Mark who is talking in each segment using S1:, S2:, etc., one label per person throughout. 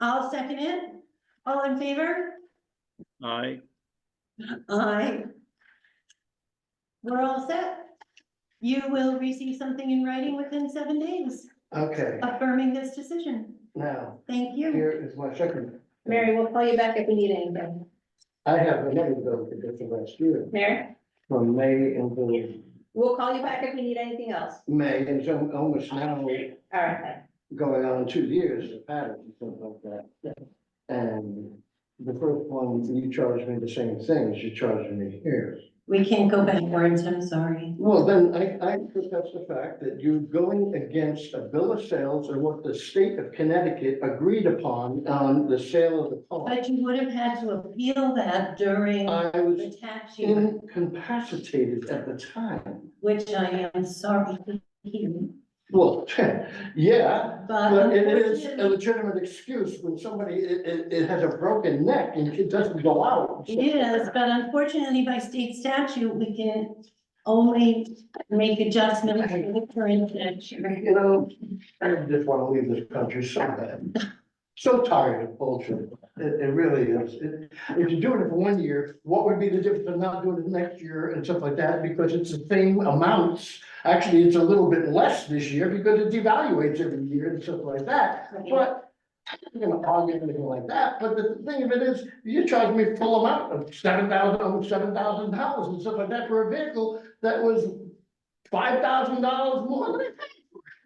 S1: I'll second it. All in favor?
S2: Aye.
S1: Aye. We're all set. You will receive something in writing within seven days
S3: Okay,
S1: affirming this decision.
S3: now,
S1: Thank you.
S3: here is my second.
S4: Mary, we'll call you back if we need anything.
S3: I have another bill to get to last year,
S4: Mary,
S3: from May until
S4: we'll call you back if we need anything else.
S3: May, and it's al- almost now
S4: All right.
S3: going on two years, the pattern, and stuff like that. And the first one, you charged me the same thing as you charged me here.
S1: We can't go backwards, I'm sorry.
S3: Well, then I, I think that's the fact that you're going against a bill of sales or what the state of Connecticut agreed upon on the sale of the pond.
S1: But you would have had to appeal that during
S3: I was
S1: the tax year,
S3: incapacitated at the time.
S1: which I am sorry to hear.
S3: Well, yeah,
S1: But
S3: but it is a
S1: Uh, unfortunately,
S3: legitimate excuse when somebody, it, it, it has a broken neck and it doesn't go out.
S1: it is, but unfortunately by state statute, we can only make adjustments for the current tax year.
S3: You know, I just wanna leave this country so bad. So tired of bullshit. It, it really is. It- If you're doing it for one year, what would be the difference of not doing it next year and stuff like that? Because it's the same amounts. Actually, it's a little bit less this year because it devaluates every year and stuff like that. But I'm not gonna argue anything like that, but the thing of it is, you charge me full amount of seven thousand, over seven thousand dollars and stuff like that for a vehicle that was five thousand dollars more than I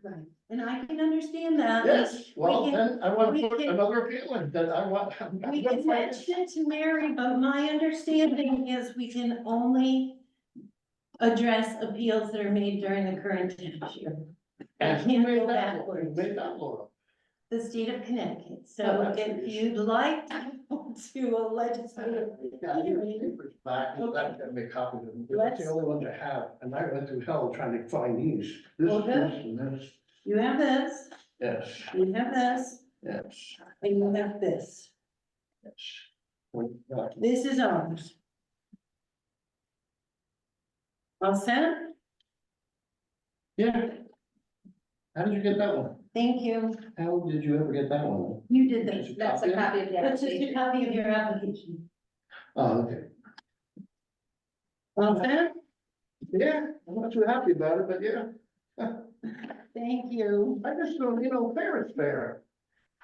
S1: Right, and I can understand that.
S3: Yes,
S1: We
S3: well,
S1: can-
S3: then I want
S1: we
S3: to put
S1: can-
S3: another appeal in, that I want. I'm
S1: We
S3: gonna
S1: can
S3: fight it.
S1: mention to Mary, but my understanding is we can only address appeals that are made during the current tax year.
S3: And
S1: we
S3: who
S1: can't go
S3: made that, law? who
S1: backwards.
S3: made that law?
S1: The state of Connecticut,
S3: Oh,
S1: so
S3: that's
S1: if
S3: the issue.
S1: you'd like to go to a legislative
S3: Yeah, your
S1: hearing.
S3: papers Back, and
S1: Okay.
S3: that got me copied, and that's
S1: Let's-
S3: the only ones I have, and I went through hell trying to find these, this,
S1: Okay.
S3: this, and this,
S1: You have this,
S3: yes,
S1: you have this,
S3: yes,
S1: and you have this.
S3: yes. When- uh,
S1: This is ours. All set?
S3: Yeah. How did you get that one?
S1: Thank you.
S3: How did you ever get that one?
S1: You did this.
S3: Just
S4: That's a
S3: copy it?
S4: copy of the
S1: That's just
S4: application.
S1: a copy of your application.
S3: Oh, okay,
S1: All set?
S3: yeah, I'm not too happy about it, but yeah.
S1: Thank you.
S3: I just don't, you know, fair is fair.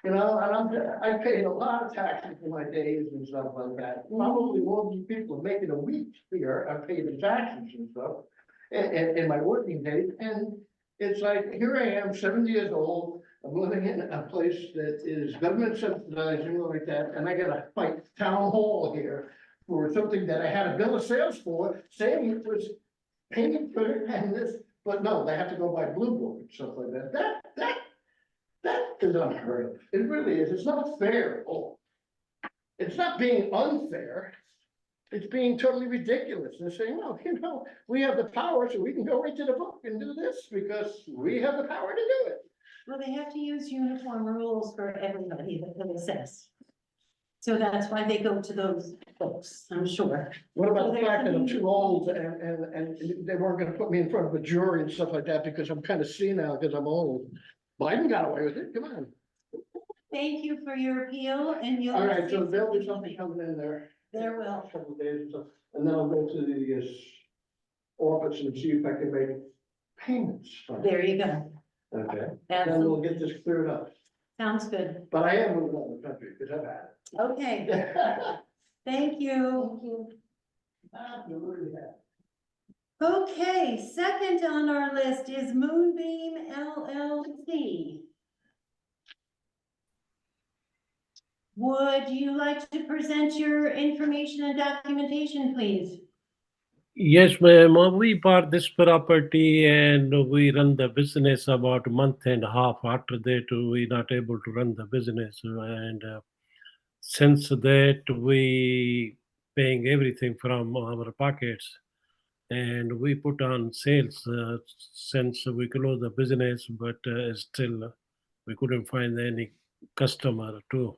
S3: You know, and I'm, I paid a lot of taxes for my days and stuff like that. Probably more than people making a week here, I paid the taxes and stuff. And, and, in my working days, and it's like, here I am, seventy years old, I'm living in a place that is government subsidizing like that, and I gotta fight town hall here. For something that I had a bill of sales for, saying it was painted good and this, but no, they have to go by Blue Book and stuff like that. That, that, that is unheard of. It really is. It's not fair at all. It's not being unfair. It's being totally ridiculous. They're saying, no, you know, we have the power, so we can go right to the book and do this because we have the power to do it.
S1: Well, they have to use uniform rules for everybody that they assess. So that's why they go to those folks, I'm sure.
S3: What about the fact that I'm too old and, and, and they weren't gonna put me in front of a jury and stuff like that because I'm kind of senile because I'm old? Biden got away with it. Come on.
S1: Thank you for your appeal and you'll.
S3: All right, so there'll be something coming in there.
S1: There will.
S3: Couple of days or so, and then I'll go to the uh, office and see if I can make payments. from it.
S1: There you go.
S3: Okay, then
S1: That
S3: we'll get this cleared up,
S1: sounds good.
S3: but I am moving out of the country, because I've had
S1: Okay,
S3: it.
S4: Thank
S1: thank you.
S4: you.
S3: Ah, Absolutely.
S1: Okay, second on our list is Moonbeam LLC. Would you like to present your information and documentation, please?
S5: Yes, ma'am. Uh, We bought this property and we run the business about a month and a half. After that, we not able to run the business and uh, since that, we paying everything from our pockets. And we put on sales uh, since we closed the business, but uh, still we couldn't find any customer too.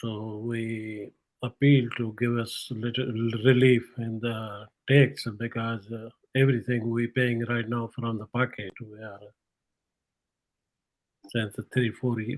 S5: So we appeal to give us little relief in the tax because uh, everything we paying right now from the pocket, we are since three, four, ye-